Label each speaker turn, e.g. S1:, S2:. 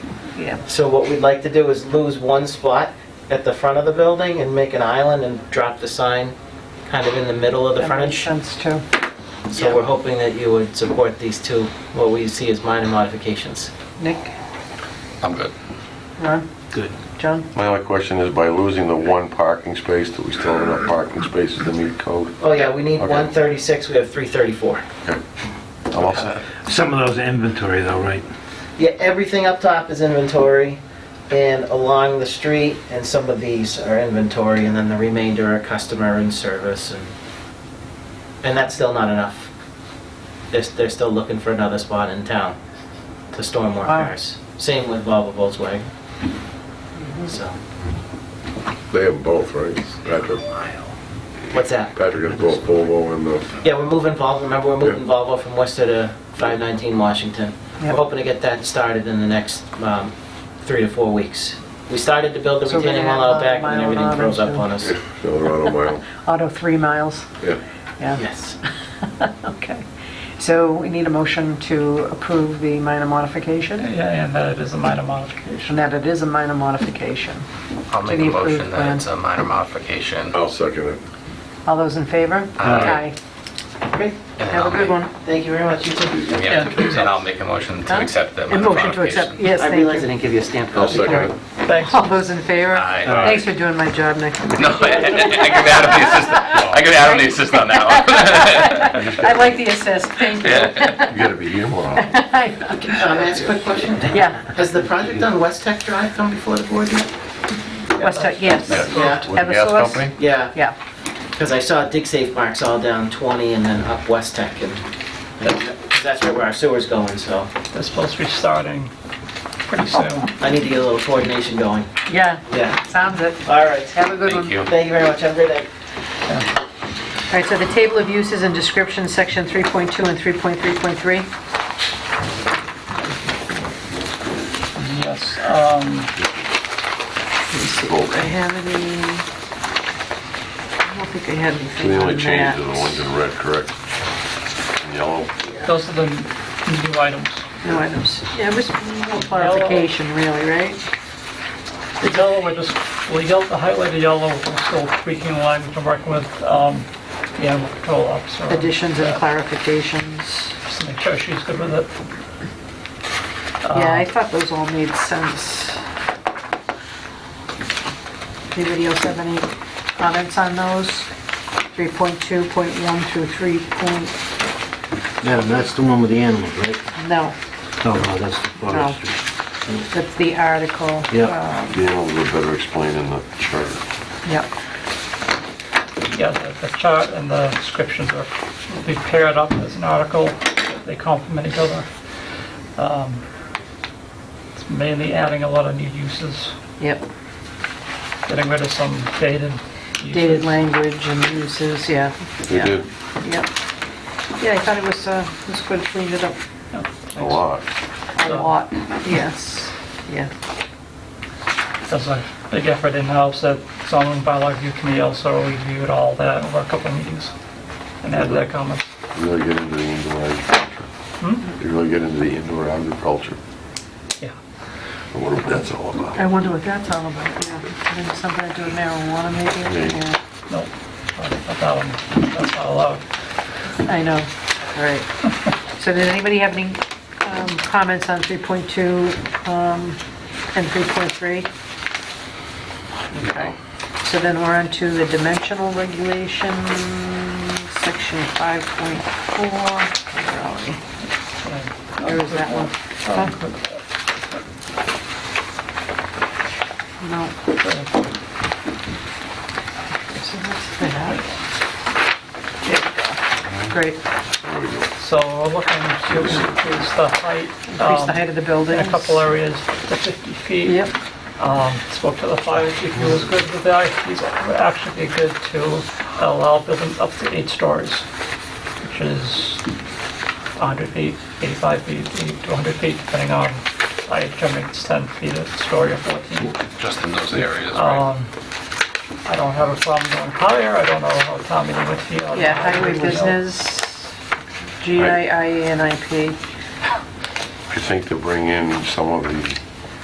S1: Yeah.
S2: So what we'd like to do is lose one spot at the front of the building and make an island and drop the sign kind of in the middle of the
S1: That makes
S2: frontage.
S1: sense too.
S2: So we're hoping that you would support these two, what we see as minor modifications.
S1: Nick,
S3: I'm good.
S1: Ron,
S4: Good.
S1: John?
S5: My only question is by losing the one parking space, do we still have enough parking spaces to meet code?
S2: Oh yeah, we need
S5: Okay.
S2: 136, we have 334.
S5: I'm all set.
S4: Some of those are inventory though, right?
S2: Yeah, everything up top is inventory, and along the street, and some of these are inventory, and then the remainder are customer and service, and, and that's still not enough. They're, they're still looking for another spot in town to store more
S1: Wow.
S2: cars. Same with Volvo Volkswagen. So,
S6: They have both, right? Patrick,
S2: what's that?
S6: Patrick has both Volvo and the,
S2: Yeah, we're moving Volvo, remember, we're moving Volvo from Worcester to 519 Washington. We're
S1: Yep.
S2: hoping to get that started in the next um, three to four weeks. We started to build the
S1: So we're gonna
S2: retaining wall
S1: have
S2: out
S1: a
S2: back, and
S1: mile
S2: then everything
S1: an hour
S2: froze up
S1: too.
S2: on us.
S6: Colorado mile,
S1: Auto three miles,
S6: yeah.
S1: yeah,
S2: Yes.
S1: okay. So we need a motion to approve the minor modification,
S7: Yeah, and that it is a minor
S1: and
S7: modification.
S1: that it is a minor modification.
S3: I'll make a
S1: Any approved
S3: motion that it's
S1: plan?
S3: a minor modification.
S6: I'll second it.
S1: All those in favor?
S3: Aye.
S2: Great.
S3: and
S1: Have a
S3: I'll
S1: good
S3: make-
S1: one.
S2: Thank you very much, you too.
S3: we have to- And I'll make a motion to
S1: Huh?
S3: accept that
S1: A
S3: minor
S1: motion to accept,
S3: modification.
S1: yes,
S2: I
S1: thank
S2: realized I
S1: you.
S2: didn't give you a stamp
S6: I'll
S2: copy.
S6: second it.
S2: Thanks.
S1: All those in favor?
S3: Aye.
S1: Thanks for doing my job, Nick.
S3: No, I could add on the assist, I could add on the assist on that one.
S1: I like the assist, thank you.
S3: Yeah.
S5: You gotta be here more often.
S2: Um, may I ask a quick question?
S1: Yeah,
S2: Has the project on West Tech Drive come before the board yet?
S1: West Tech, yes,
S2: Yeah.
S5: With the gas
S1: Eversource?
S5: company?
S2: Yeah,
S1: yeah.
S2: because I saw dig safe marks all down 20 and then up West Tech, and because that's right where our sewer's going, so
S7: They're supposed to be starting pretty soon.
S2: I need to get a little coordination going.
S1: Yeah,
S2: Yeah.
S1: sounds it.
S2: All right.
S1: Have a good one.
S3: Thank you.
S2: Thank you very much. Have a great day.
S1: All right, so the table of uses and descriptions, section 3.2 and 3.3.3.
S7: Yes, um,
S1: I have any, I don't think I had
S5: So
S1: anything
S5: the only
S1: on
S5: changes are the ones
S1: that.
S5: in red, correct? And Yellow?
S7: those are the new items.
S1: No items. Yeah, it was more clarification, really, right?
S7: The yellow, I just, well, yellow, the highlighted yellow, we're still tweaking the language I'm working with, um, the animal control officer.
S1: Additions and clarifications.
S7: Just make sure she's good with it.
S1: Yeah, I thought those all made sense. Anybody else have any comments on those? 3.2.1 through 3. point-
S4: Yeah, that's the one with the animals, right?
S1: No,
S4: Oh, no, that's the
S1: no.
S4: forestry.
S1: That's the article.
S4: Yeah.
S5: The animals are better explained in the chart.
S1: Yep.
S7: Yeah, the- the chart and the descriptions are, will be paired up as an article, they complement each other. Um, It's mainly adding a lot of new uses,
S1: Yep.
S7: getting rid of some dated uses.
S1: Dated language and uses, yeah.
S5: They
S1: Yeah.
S5: did
S1: Yep. Yeah, I thought it was, uh, it was good, cleaned it up
S7: Yeah,
S5: a lot.
S1: a lot. Yes, yeah.
S7: There's a big effort in-house that zoning bylaw review committee also reviewed all that over a couple of meetings and added their comments.
S5: Really get into the indoor agriculture. They really get into the indoor agriculture.
S7: Yeah.
S5: I wonder what that's all about.
S1: I wonder what that's all about, yeah. Maybe Something to do with marijuana, maybe?
S5: Maybe.
S1: Yeah.
S7: Nope, not that one, that's not allowed.
S1: I know, all right. So does anybody have any um, comments on 3.2 um, and 3.3? Okay, so then we're on to the dimensional regulation, section 5.4. Where are we? There is that one. No. So what's that? There we go. Great.
S5: There we go.
S7: So we're looking to increase the height.
S1: Increase the
S7: um,
S1: height of the building.
S7: In a couple areas to 50 feet.
S1: Yep,
S7: Um, Spoke to the fire chief, he was good with that. He's would actually be good to allow buildings up to eight stories, which is 100 feet, 85 feet, 80 to 100 feet, depending on, I determine it's 10 feet a story or 14.
S3: Just in those areas,
S1: Oh,
S3: right?
S7: Um, I don't have a problem going higher, I don't know how town meeting would feel.
S1: yeah, highway business, GII and IP.
S5: I think to bring in some of the